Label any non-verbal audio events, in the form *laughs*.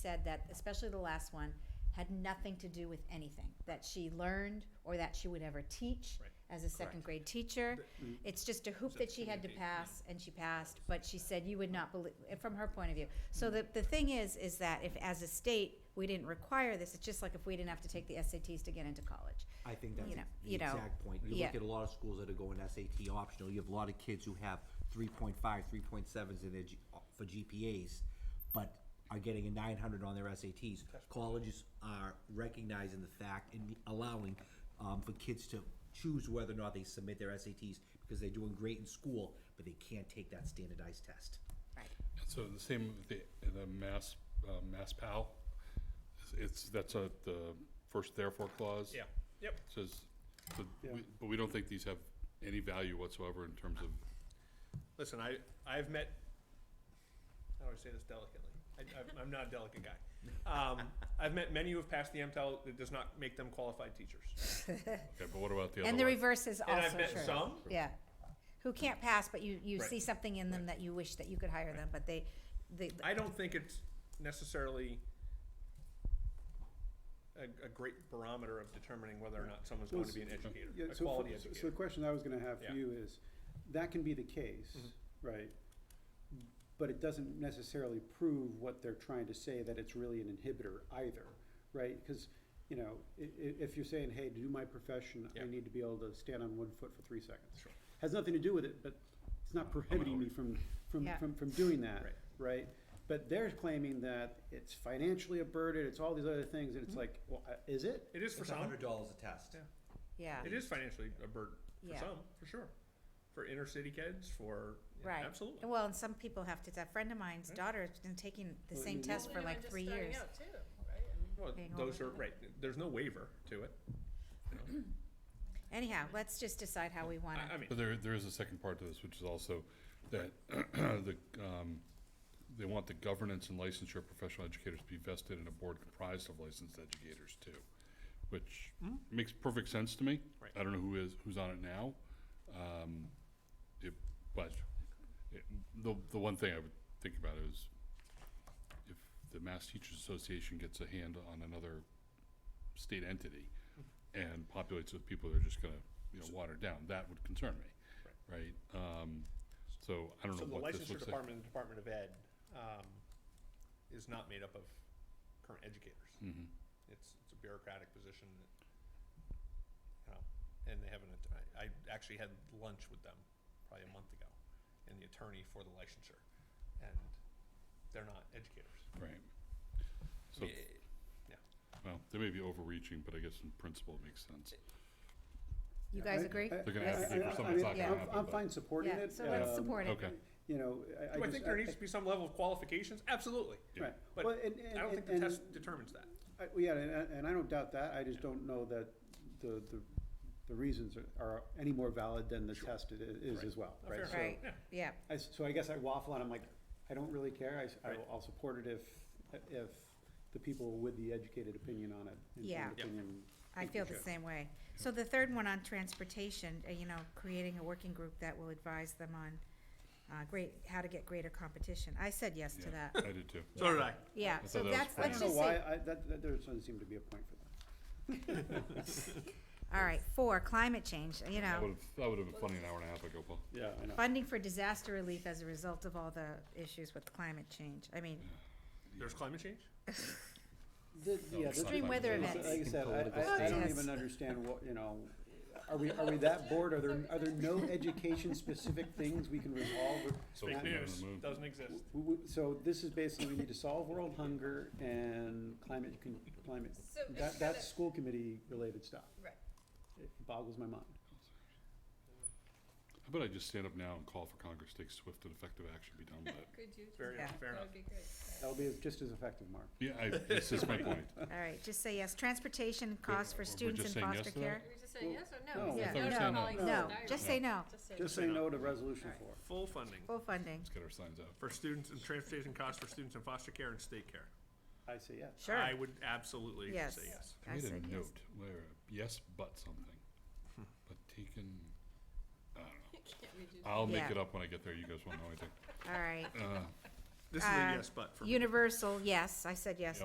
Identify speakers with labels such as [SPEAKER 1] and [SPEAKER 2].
[SPEAKER 1] said that, especially the last one, had nothing to do with anything that she learned or that she would ever teach
[SPEAKER 2] Right.
[SPEAKER 1] as a second grade teacher.
[SPEAKER 2] mm.
[SPEAKER 1] It's just a hoop that she had to pass, and she passed, but she said you would not believe, from her point of view. So
[SPEAKER 2] Mm.
[SPEAKER 1] the, the thing is, is that if, as a state, we didn't require this, it's just like if we didn't have to take the SATs to get into college.
[SPEAKER 3] I think that's
[SPEAKER 1] You know-
[SPEAKER 3] the
[SPEAKER 1] you know,
[SPEAKER 3] exact point. You
[SPEAKER 1] yeah.
[SPEAKER 3] look at a lot of schools that are going SAT optional. You have a lot of kids who have 3.5, 3.7s in their G- for GPAs, but are getting a 900 on their SATs. Colleges are recognizing the fact and allowing um, for kids to choose whether or not they submit their SATs because they're doing great in school, but they can't take that standardized test.
[SPEAKER 1] Right.
[SPEAKER 4] So the same with the, the Mass, uh, Mass Pal, It's- it's, that's a, the first therefore clause.
[SPEAKER 2] Yeah, yep.
[SPEAKER 4] Says, but we, but we don't think these have any value whatsoever in terms of,
[SPEAKER 2] Listen, I, I've met, how do I say this delicately? I, I, I'm not a delicate guy. Um, I've met many who have passed the MTEL that does not make them qualified teachers.
[SPEAKER 4] okay, but what about the other
[SPEAKER 1] And the
[SPEAKER 4] one?
[SPEAKER 1] reverse is
[SPEAKER 2] And
[SPEAKER 1] also
[SPEAKER 2] I've met
[SPEAKER 1] true.
[SPEAKER 2] some,
[SPEAKER 1] Yeah, who can't pass, but you, you
[SPEAKER 2] Right.
[SPEAKER 1] see something in them that you wish that you could hire them, but they, they,
[SPEAKER 2] I don't think it's necessarily a, a great barometer of determining whether or not someone's going to be an educator,
[SPEAKER 5] Yeah,
[SPEAKER 2] a
[SPEAKER 5] so,
[SPEAKER 2] quality
[SPEAKER 5] for- so- so
[SPEAKER 2] educator.
[SPEAKER 5] the question I was gonna have
[SPEAKER 2] Yeah. Mm-hmm.
[SPEAKER 5] for you is, that can be the case, right? But it doesn't necessarily prove what they're trying to say, that it's really an inhibitor either, right? Cause, you know, i- i- if you're saying, hey, to do my profession,
[SPEAKER 2] Yeah.
[SPEAKER 5] I need to be able to stand on one foot for three seconds.
[SPEAKER 2] Sure.
[SPEAKER 5] Has nothing to do with it, but it's not prohibiting me from, from,
[SPEAKER 1] Yeah.
[SPEAKER 5] from, from doing that,
[SPEAKER 2] Right.
[SPEAKER 5] right? But they're claiming that it's financially a burden, it's all these other things, and it's like, well, uh, is it?
[SPEAKER 2] It is for
[SPEAKER 3] It's
[SPEAKER 2] some,
[SPEAKER 3] $100 a test.
[SPEAKER 2] Yeah.
[SPEAKER 1] yeah,
[SPEAKER 2] it is financially a burden, for
[SPEAKER 1] Yeah.
[SPEAKER 2] some, for sure. For inner city kids, for, yeah,
[SPEAKER 1] right.
[SPEAKER 2] absolutely.
[SPEAKER 1] Well, and some people have to, a friend of mine's
[SPEAKER 5] Hmm?
[SPEAKER 2] Right.
[SPEAKER 1] daughter has been taking the
[SPEAKER 5] Well,
[SPEAKER 1] same
[SPEAKER 5] you-
[SPEAKER 1] test for
[SPEAKER 6] Well,
[SPEAKER 1] like
[SPEAKER 6] and
[SPEAKER 1] three
[SPEAKER 6] just starting
[SPEAKER 1] years.
[SPEAKER 6] out, too, right? I mean,
[SPEAKER 2] Well,
[SPEAKER 1] being
[SPEAKER 2] those are,
[SPEAKER 1] overlooked.
[SPEAKER 2] right, there's no waiver to it.
[SPEAKER 1] Anyhow, let's just decide how we want
[SPEAKER 2] I, I
[SPEAKER 1] to,
[SPEAKER 2] mean,
[SPEAKER 4] But there, there is a second part to this, which is also that *clears throat* the, um, they want the governance and licensure of professional educators to be vested in a board comprised of licensed educators too, which makes perfect sense to me.
[SPEAKER 2] Hmm? Right.
[SPEAKER 4] I don't know who is, who's on it now. Um, it, but it, the, the one thing I would think about is if the Mass Teachers Association gets a hand on another state entity and populates with people that are just gonna, you know, water it down, that would concern me, right? Um, so I don't
[SPEAKER 2] so
[SPEAKER 4] know
[SPEAKER 2] the
[SPEAKER 4] what this
[SPEAKER 2] licensure
[SPEAKER 4] looks like.
[SPEAKER 2] department and Department of Ed, um, is not made up of current educators.
[SPEAKER 4] Mhm.
[SPEAKER 2] It's, it's a bureaucratic position that, you know, and they haven't, att- I, I actually had lunch with them probably a month ago, and the attorney for the licensure, and they're not educators.
[SPEAKER 4] Right.
[SPEAKER 2] I
[SPEAKER 4] So,
[SPEAKER 2] mean, it-
[SPEAKER 4] well, they may be overreaching, but I guess in principle it makes sense.
[SPEAKER 1] you guys agree?
[SPEAKER 5] I- I-
[SPEAKER 4] They're gonna have to
[SPEAKER 5] I-
[SPEAKER 4] do
[SPEAKER 5] I-
[SPEAKER 4] for
[SPEAKER 5] I
[SPEAKER 4] something, it's
[SPEAKER 5] mean,
[SPEAKER 4] not gonna
[SPEAKER 5] I'm-
[SPEAKER 4] happen,
[SPEAKER 5] I'm
[SPEAKER 4] but-
[SPEAKER 5] fine supporting
[SPEAKER 1] Yeah,
[SPEAKER 5] it.
[SPEAKER 1] so let's
[SPEAKER 5] um,
[SPEAKER 1] support it.
[SPEAKER 4] Okay,
[SPEAKER 5] You know, I, I
[SPEAKER 2] Do I
[SPEAKER 5] just-
[SPEAKER 2] think there needs to be some level of qualifications? Absolutely.
[SPEAKER 4] Yeah.
[SPEAKER 5] Right,
[SPEAKER 2] but
[SPEAKER 5] well, and,
[SPEAKER 2] I don't
[SPEAKER 5] and,
[SPEAKER 2] think the
[SPEAKER 5] and,
[SPEAKER 2] test determines that.
[SPEAKER 5] I- well, yeah, and, and I don't doubt that, I just don't know that the, the, the reasons are- are any more valid than the test i- is
[SPEAKER 2] Right.
[SPEAKER 5] as well, right?
[SPEAKER 2] Fair
[SPEAKER 5] So-
[SPEAKER 2] enough.
[SPEAKER 1] Right,
[SPEAKER 2] Yeah.
[SPEAKER 1] yeah,
[SPEAKER 5] I, s- so I guess I waffle and I'm like, I don't really care, I s- I,
[SPEAKER 2] Right.
[SPEAKER 5] will- I'll support it if, if the people with the educated opinion on it.
[SPEAKER 1] Yeah.
[SPEAKER 5] informed
[SPEAKER 2] Yeah.
[SPEAKER 5] opinion,
[SPEAKER 1] I
[SPEAKER 5] think
[SPEAKER 1] feel
[SPEAKER 5] we
[SPEAKER 1] the
[SPEAKER 5] should.
[SPEAKER 1] same way. So the third one on transportation, uh, you know, creating a working group that will advise them on, uh, great, how to get greater competition. I said yes to
[SPEAKER 4] yeah,
[SPEAKER 1] that.
[SPEAKER 4] I did too.
[SPEAKER 2] So did I.
[SPEAKER 1] Yeah,
[SPEAKER 4] thought
[SPEAKER 1] so
[SPEAKER 4] that was
[SPEAKER 1] that's,
[SPEAKER 4] pretty
[SPEAKER 5] I
[SPEAKER 1] let's
[SPEAKER 5] don't
[SPEAKER 1] just
[SPEAKER 5] know
[SPEAKER 1] see.
[SPEAKER 5] why, I, that, that, there doesn't seem to be a point for that.
[SPEAKER 1] All right, four, climate change, you
[SPEAKER 4] That
[SPEAKER 1] know.
[SPEAKER 4] would've, that would've been funny an hour and a half ago, Paul.
[SPEAKER 5] Yeah, I know.
[SPEAKER 1] funding for disaster relief as a result of all the issues with climate change. I mean,
[SPEAKER 2] There's climate change?
[SPEAKER 5] The- yeah, the-
[SPEAKER 1] extreme weather
[SPEAKER 5] Like I
[SPEAKER 1] events.
[SPEAKER 5] said, I-
[SPEAKER 3] Political
[SPEAKER 5] I, I don't
[SPEAKER 1] statements.
[SPEAKER 5] even understand what, you know, are we, are we that bored? Are there, are there no education-specific things we can resolve? or-
[SPEAKER 4] So
[SPEAKER 2] Fake
[SPEAKER 4] we're on the
[SPEAKER 2] news,
[SPEAKER 4] move.
[SPEAKER 2] doesn't exist.
[SPEAKER 5] w- w- So this is basically, we need to solve world hunger and climate, con- climate.
[SPEAKER 6] So it's
[SPEAKER 5] That,
[SPEAKER 6] kind
[SPEAKER 5] that's
[SPEAKER 6] of,
[SPEAKER 5] school committee-related stuff.
[SPEAKER 6] right,
[SPEAKER 5] It boggles my mind.
[SPEAKER 4] How about I just stand up now and call for Congress, take swift and effective action, be done with it?
[SPEAKER 6] could you?
[SPEAKER 2] Fair enough,
[SPEAKER 1] Yeah.
[SPEAKER 2] fair
[SPEAKER 6] That
[SPEAKER 2] enough.
[SPEAKER 6] would be great.
[SPEAKER 5] That'll be just as effective, Mark.
[SPEAKER 4] Yeah, I, this is my point.
[SPEAKER 1] all right, just say yes. Transportation costs
[SPEAKER 4] We're
[SPEAKER 1] for students
[SPEAKER 4] just
[SPEAKER 1] in
[SPEAKER 4] saying yes
[SPEAKER 1] foster
[SPEAKER 4] to that?
[SPEAKER 1] care?
[SPEAKER 6] Are we just saying
[SPEAKER 5] Well,
[SPEAKER 6] yes or no?
[SPEAKER 5] no.
[SPEAKER 6] Is
[SPEAKER 1] Yeah,
[SPEAKER 6] it
[SPEAKER 4] no,
[SPEAKER 6] or
[SPEAKER 4] no,
[SPEAKER 6] calling
[SPEAKER 5] no.
[SPEAKER 1] No,
[SPEAKER 6] it
[SPEAKER 1] just say
[SPEAKER 6] diary?
[SPEAKER 1] no.
[SPEAKER 6] Just say
[SPEAKER 5] Just
[SPEAKER 6] no.
[SPEAKER 5] say no to resolution four.
[SPEAKER 2] Full funding
[SPEAKER 1] Full funding.
[SPEAKER 4] Let's get our
[SPEAKER 1] *laughs*
[SPEAKER 4] signs out.
[SPEAKER 2] for students and transportation costs for students in foster care and state care.
[SPEAKER 5] I say yes.
[SPEAKER 1] Sure.
[SPEAKER 2] I would absolutely say
[SPEAKER 1] Yes.
[SPEAKER 2] yes.
[SPEAKER 4] I made
[SPEAKER 1] said
[SPEAKER 4] a
[SPEAKER 1] yes.
[SPEAKER 4] note where, yes, but something, but taken, I don't know.
[SPEAKER 6] *laughs* Can't we do that?
[SPEAKER 4] I'll make
[SPEAKER 1] Yeah.
[SPEAKER 4] it up when I get there, you guys won't know anything.
[SPEAKER 1] All right.
[SPEAKER 4] Uh,
[SPEAKER 2] This is a
[SPEAKER 1] uh,
[SPEAKER 2] yes, but for me.
[SPEAKER 1] Universal, yes, I said yes